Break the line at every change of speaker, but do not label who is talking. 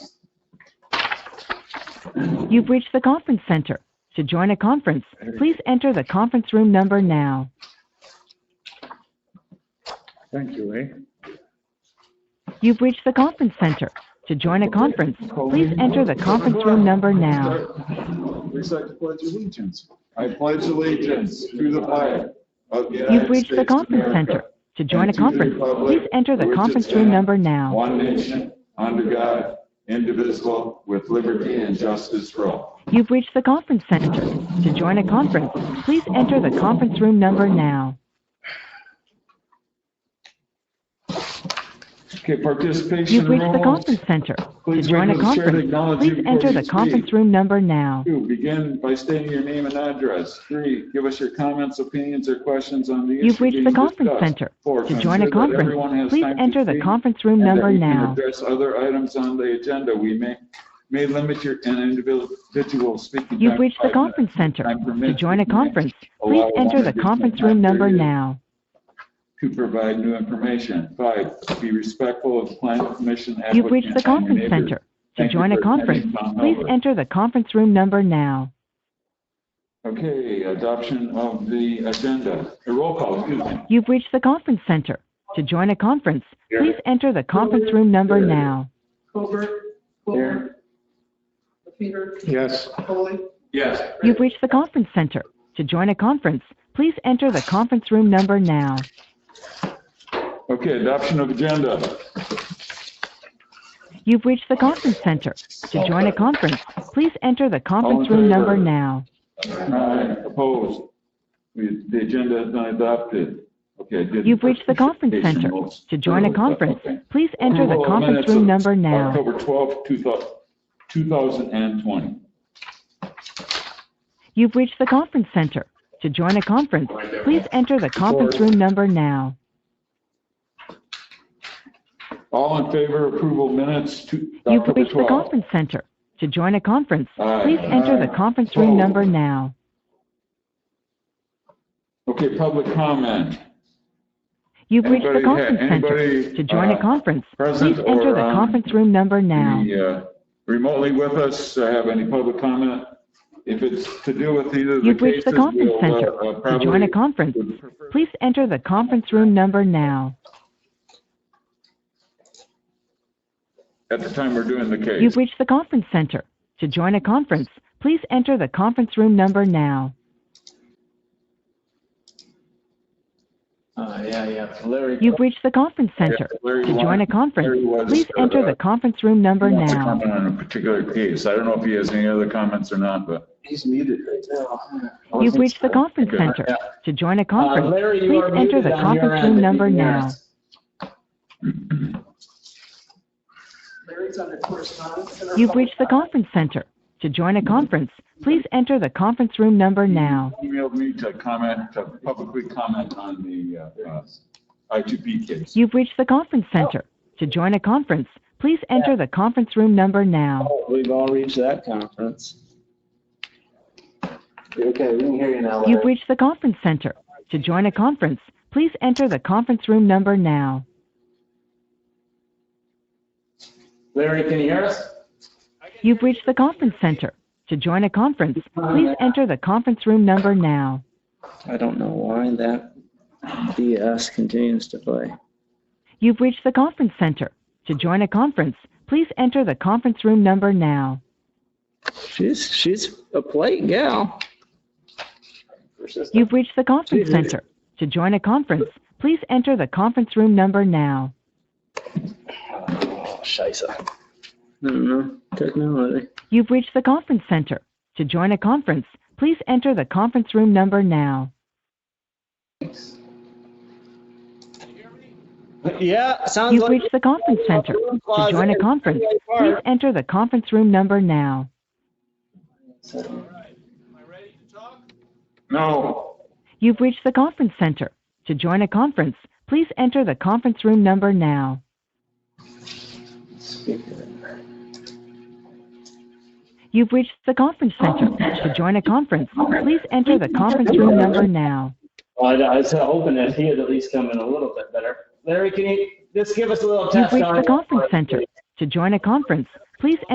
You've reached the conference center. To join a conference, please enter the conference room number now.
Thank you, eh?
You've reached the conference center. To join a conference, please enter the conference room number now.
Recite the pledge of allegiance. I pledge allegiance to the flag of the
You've
United
reached the
States of
conference
America,
center. To join a
and to the
conference,
republic
please enter
for
the
which it
conference room
stands,
number now.
One nation, under God, indivisible, with liberty and justice for all.
You've reached the conference center. To join a conference, please enter the conference room number now.
Okay, participation
You've reached the
rules.
conference center. To
Please
join
wait
a
for the chair to
conference,
acknowledge you
please
before
enter
you
the
speak.
conference room number now.
Two, begin by stating your name and address. Three, give us your comments, opinions, or questions on the issue
You've reached the
being
conference
discussed.
center.
Four,
To join
consider
a
that everyone
conference,
has
please
time to
enter the
speak
conference room
and that
number
you can
now.
Address other items on the agenda. We may, may limit your an individual speaking. time
You've
to
reached the
five minutes.
conference center.
Time
To
permits,
join a
we may
conference,
allow
please
one
enter the
additional
conference
time
room number
period
now.
To provide new information. Five, be respectful of planning commission applicants.
You've reached the
and your
conference
neighbors.
center. To
Thank you
join
for
a
attending
conference,
Mount
please
Melbourne.
enter the conference room number now.
Okay, adoption of the agenda. A roll call, excuse me.
You've reached the conference center. To join a conference, please enter the conference room number now.
Colbert, Colbert, Peter,
Yes.
Foley,
Yes.
You've reached the conference center. To join a conference, please enter the conference room number now.
Okay, adoption of agenda.
You've reached the conference center. To join a conference, please enter the conference
All in
room number
favor?
now.
Aye. Opposed? We- The agenda is not adopted. Okay. I did-
You've reached the conference center. To join a conference, please enter the
Oh, Approval of
conference
minutes
room
of
number now.
October 12, 2020.
You've reached the conference center. To join a conference, please enter the conference room number now.
All in favor, approval minutes to
You've
October
reached the
12.
conference center. To join a conference,
Aye.
please enter the
Aye.
conference room
Aye.
number now.
Okay, public comment.
You've reached the
Anybody had-
conference center.
anybody,
To join a
uh,
conference,
present
please enter
or
the
on
conference room number now.
Any, uh, Remotely with us, uh, have any public comment? If it's to do with either of the
You've reached
cases,
the conference
we'll
center.
uh, uh,
To join
probably
a conference,
would prefer
please enter the conference room number now.
at the time we're doing the case.
You've reached the conference center. To join a conference, please enter the conference room number now.
Uh, yeah, yeah. Larry.
You've reached the conference center.
Larry
To join a
wanted-
conference,
Larry was,
please
uh,
enter the conference room number
wants to
now.
comment on a particular case. I don't know if he has any other comments or not, but.
He's muted right now.
You've reached the conference
Okay.
center.
Yeah.
To join a
Uh,
conference,
Larry, you
please
are
enter
muted
the
on your
conference room
end.
number now.
Larry's under correspondence. and our
You've reached the
public-
conference center. To join a conference, please enter the conference room number now.
Emailed me to comment, to publicly comment on the uh, uh, I2P case.
You've reached the conference center. To join a conference, please enter the conference room number now.
Oh, We've all reached that conference. Okay, we can hear you now,
You've reached the conference center. To join a conference, please enter the conference room number now.
Larry, can you hear us?
You've reached the conference center. To join a conference, please enter the conference room number now.
I don't know why that BS continues to play.
You've reached the conference center. To join a conference, please enter the conference room number now.
She's, she's a plate gal.
You've reached the conference center. To join a conference, please enter the conference room number now.
Oh, Scheisse. I don't know, technology.
You've reached the conference center. To join a conference, please enter the conference room number now.
Yeah, sounds
You've reached the conference center. To join a conference, please enter the conference room number now.
No.
You've reached the conference center. To join a conference, please enter the conference room number now. You've reached the conference center. To join a conference, please enter the conference room number now.
Well, I I was hoping that he had at least come in a little bit better. Larry, can you just give us a little
You've
test on
reached the
it?
conference center. To join a conference, please